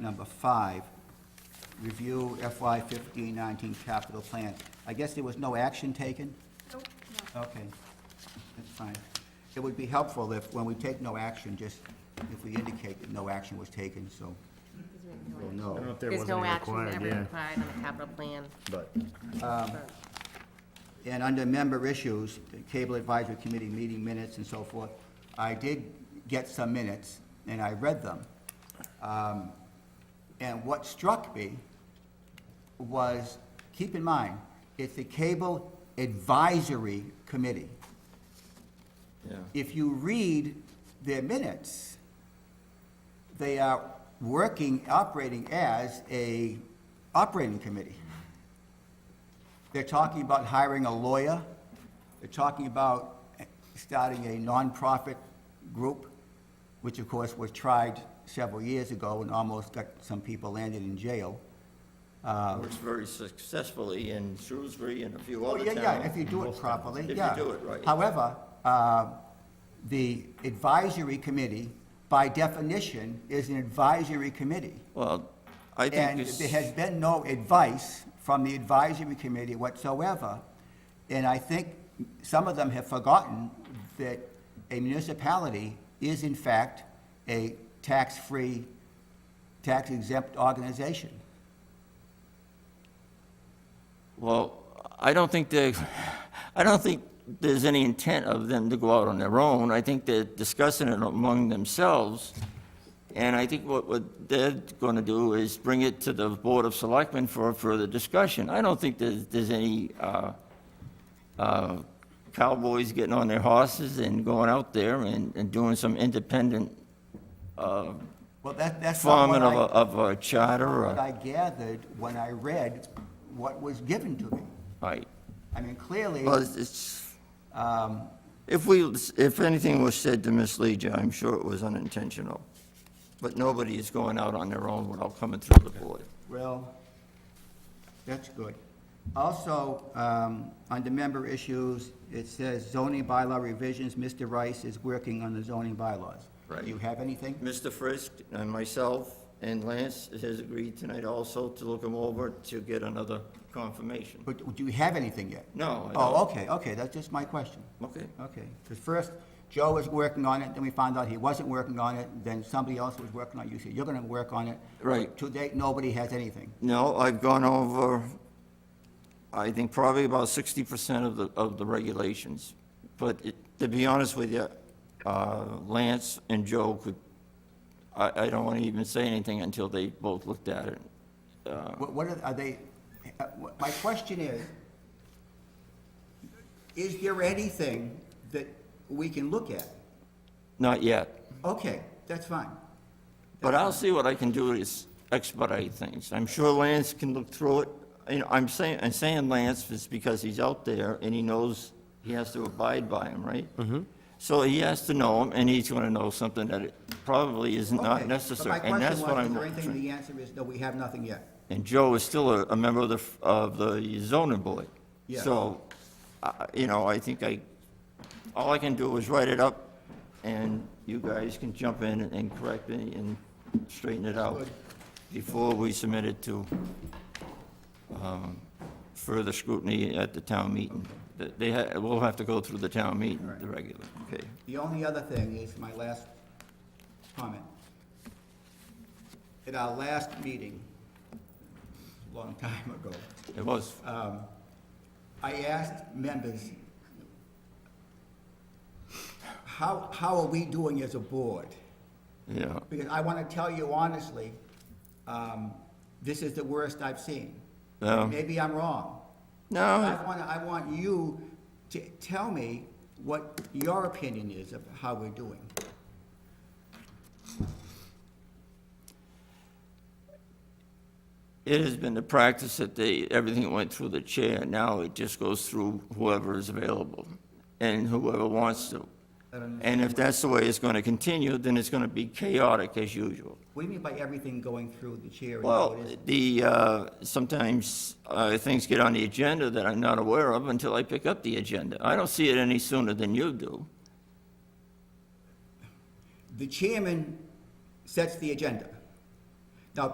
number five, review FY fifteen nineteen capital plan. I guess there was no action taken? Nope, no. Okay, that's fine. It would be helpful if, when we take no action, just if we indicate that no action was taken, so we'll I don't know know. if there There's wasn't no any action required, ever yeah. required on the capital plan. But um, And under member issues, the Cable Advisory Committee meeting minutes and so forth, I did get some minutes, and I read them. Um, And what struck me was, keep in mind, it's the Cable Advisory Committee. If you read their minutes, they are working, operating as a operating committee. They're talking about hiring a lawyer. They're talking about starting a nonprofit group, which of course was tried several years ago and almost got some people landed in jail. Works very successfully in Shrewsbury and a few Oh, other yeah, towns. yeah, if you do it properly, If you yeah. do it right. However, uh, the advisory committee, by definition, is an advisory committee. Well, I think And this. there has been no advice from the advisory committee whatsoever. And I think some of them have forgotten that a municipality is in fact a tax-free, tax-exempt organization. Well, I don't think they, I don't think there's any intent of them to go out on their own. I think they're discussing it among themselves. And I think what, what they're going to do is bring it to the Board of Selectmen for further discussion. I don't think there's, there's any, uh, uh, cowboys getting on their horses and going out there and, and doing some independent Well, that, that's not what forming of I, a, uh, of a charter what or, I gathered when I read what was given to me. right. I mean, clearly, Well, it's- it's, um, if we, if anything was said to mislead you, I'm sure it was unintentional. But nobody is going out on their own without coming through the board. Well, that's good. Also, um, under member issues, it says zoning bylaw revisions. Mr. Rice is working on the zoning bylaws. Right. Do you have anything? Mr. Frisk and myself and Lance has agreed tonight also to look them over to get another confirmation. But do you have anything yet? No, I Oh, don't. okay, okay, that's just my question. Okay. Okay, because first, Joe was working on it, then we found out he wasn't working on it, then somebody else was working on it. You said, you're gonna work on it. Right. To date, nobody has anything. No, I've gone over, I think probably about sixty percent of the, of the regulations. But it, to be honest with you, uh, Lance and Joe could, I, I don't want to even say anything until they both looked at it. What, what are, are they, uh, what- my question is, is there anything that we can look at? Not yet, Okay, that's fine. but I'll see what I can do to s- expedite things. I'm sure Lance can look through it. You know, I'm saying, I'm saying Lance is because he's out there and he knows he has to abide by him, right? Mm-hmm. So he has to know him and he's gonna know something that it probably is Okay, not but necessary. And that's what My I'm, question was, is there anything, trying- the answer is, no, we have nothing yet. and Joe is still a, a member of the, f- of the zoning board. Yeah. So, I- you know, I think I, all I can do is write it up, and you guys can jump in and correct me and straighten it out before we submit it to um, further scrutiny at the town meeting. That They, ha- we'll have to go through the town meeting, the regular, okay? The only other thing is my last comment. At our last meeting, a long time ago, It was, I asked members, how, how are we doing as a board? yeah, Because I want to tell you honestly, um, this is the worst I've seen. Yeah. Maybe I'm wrong. Um, no, I want, to. I want you to tell me what your opinion is of how we're doing. It has been the practice that they, everything went through the chair. Now it just goes through whoever is available and whoever wants to. And if that's the way it's going to continue, then it's going to be chaotic as usual. What do you mean by everything going through the chair? and how Well, it is? the, uh, sometimes uh, things get on the agenda that I'm not aware of until I pick up the agenda. I don't see it any sooner than you do. The chairman sets the agenda.